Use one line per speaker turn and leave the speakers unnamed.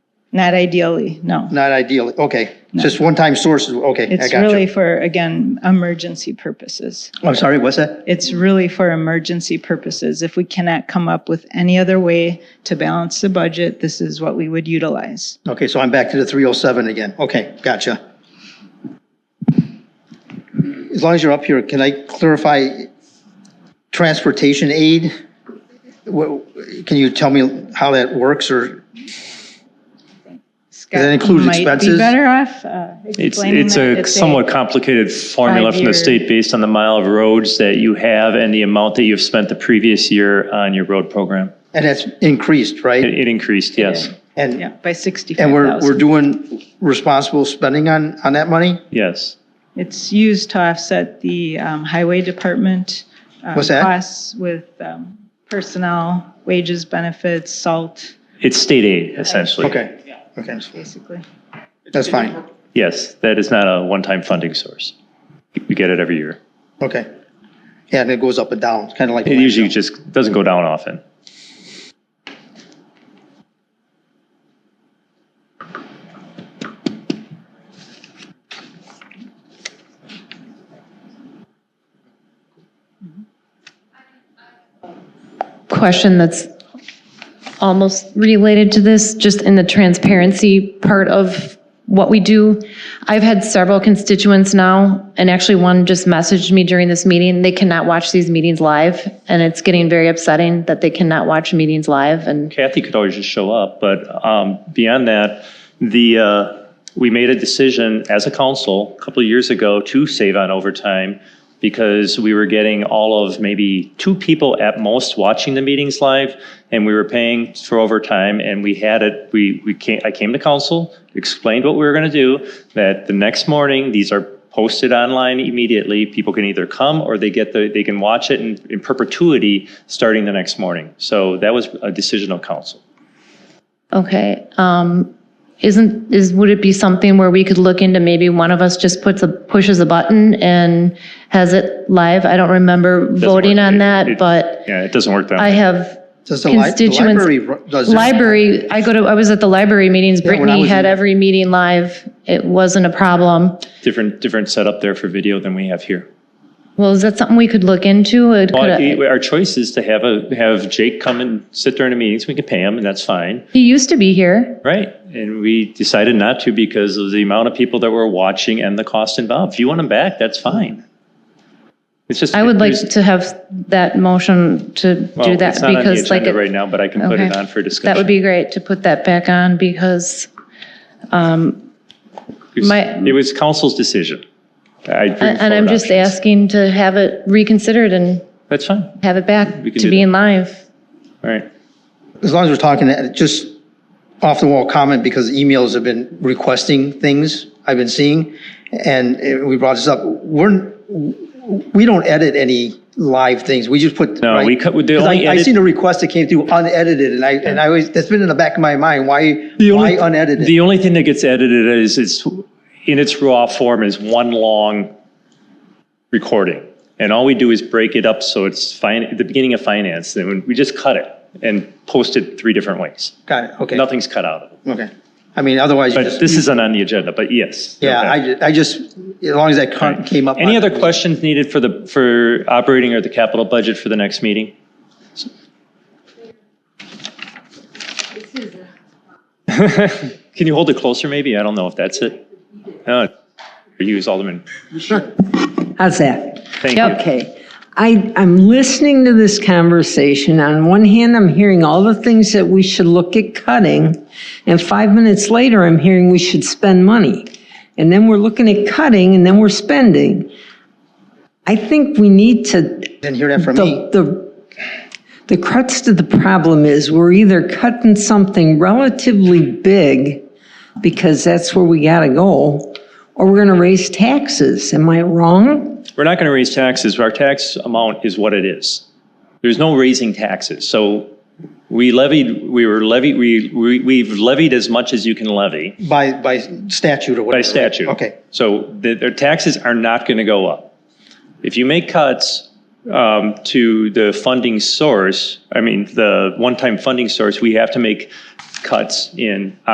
Not ideally, no.
Not ideally, okay. Just one-time sources, okay, I
It's
got
really
you.
for, again, emergency purposes.
I'm sorry, what's that?
It's really for emergency purposes. If we cannot come up with any other way to balance the budget, this is what we would utilize.
Okay, so I'm back to the 307 again. Okay, gotcha. As long as you're up here, can I clarify transportation aid? What- Can you tell me how that works or,
Scott
includes
Might
expenses?
be better off uh,
It's,
explaining
it's
that.
a somewhat complicated formula from
five-year-
the state based on the mile of roads that you have and the amount that you've spent the previous year on your road program.
and that's increased, right?
It it increased, yes,
Yeah,
And,
by
and we're, we're
65,000.
doing responsible spending on, on that money?
yes.
It's used to offset the um, highway department. uh,
What's that?
Costs with um, personnel, wages, benefits, salt,
It's state aid essentially.
Okay, okay,
basically.
that's fine.
Yes, that is not a one-time funding source. You get it every year.
Okay. Yeah, and it goes up and down, It's kind of like.
It usually just doesn't go down often.
question that's almost related to this, just in the transparency part of what we do. I've had several constituents now, and actually one just messaged me during this meeting, they cannot watch these meetings live, and it's getting very upsetting that they cannot watch meetings live, and
Kathy could always just show up, but um, beyond that, the, uh, we made a decision as a council a couple of years ago to save on overtime because we were getting all of maybe two people at most watching the meetings live, and we were paying for overtime, and we had it, we, we came, I came to council, explained what we were going to do, that the next morning, these are posted online immediately. People can either come or they get the, they can watch it in, in perpetuity starting the next morning. So that was a decision of council.
Okay, um, isn't, is, would it be something where we could look into maybe one of us just puts a, pushes a button and has it live? I don't remember voting on
It-
that,
it-
but
Yeah, it doesn't work that
I
way.
have
Does the li- the
constituents-
library ru- does it?
library, I go to, I was at the library meetings,
when I
Brittany
was
had
in-
every meeting live, it wasn't a problem.
Different, different setup there for video than we have here.
Well, is that something we could look into? It
Well,
could-
it- our choice is to have a, have Jake come and sit during the meetings. We can pay him and that's fine,
He used to be here,
right? And we decided not to because of the amount of people that were watching and the cost involved. If you want him back, that's fine. It's just.
I would like
there's-
to have that motion to do
well,
that
It's not on the
because like.
agenda
it-
right now, but I can put it
Okay.
on for discussion.
That would be great to put that back on because
It was-
My-
It was council's decision. I bring
And and I'm
forward
just
options.
asking to have it reconsidered and
That's fine, all
have it back
We can
to
do
being live.
right.
As long as we're talking, uh, just off the wall comment, because emails have been requesting things I've been seeing, and uh, we brought this up, we're, we don't edit any live things, we just put.
No,
right?
we cut- the
'Cause I-
only
I
edit-
seen a request that came through unedited, and I, and I always, that's been in the back of my mind, why, why unedited?
The only thing that gets edited is, it's, in its raw form is one long recording. And all we do is break it up so it's fine, at the beginning of finance, and we just cut it and post it three different ways.
Got it, okay,
Nothing's cut out of it.
okay. I mean, otherwise, you
But
just,
this isn't on the agenda, but yes.
yeah, I,
Okay.
ju- I just, as long as that con- came up. on-
Any other questions needed for the, for operating or the capital budget for the next meeting? Can you hold it closer, maybe? I don't know if that's it. No, Use Alderman.
How's that?
Thank you.
Okay. I, I'm listening to this conversation. On one hand, I'm hearing all the things that we should look at cutting, and five minutes later, I'm hearing we should spend money. And then we're looking at cutting, and then we're spending. I think we need to
Didn't hear that from me.
the, the, the crux to the problem is we're either cutting something relatively big because that's where we gotta go, or we're gonna raise taxes. Am I wrong?
We're not going to raise taxes. Our tax amount is what it is. There's no raising taxes. So we levied, we were levied, we, we- we've levied as much as you can levy.
By, by statute or whatever.
By statute.
Okay.
So the- their taxes are not going to go up. If you make cuts um, to the funding source, I mean, the one-time funding source, we have to make cuts in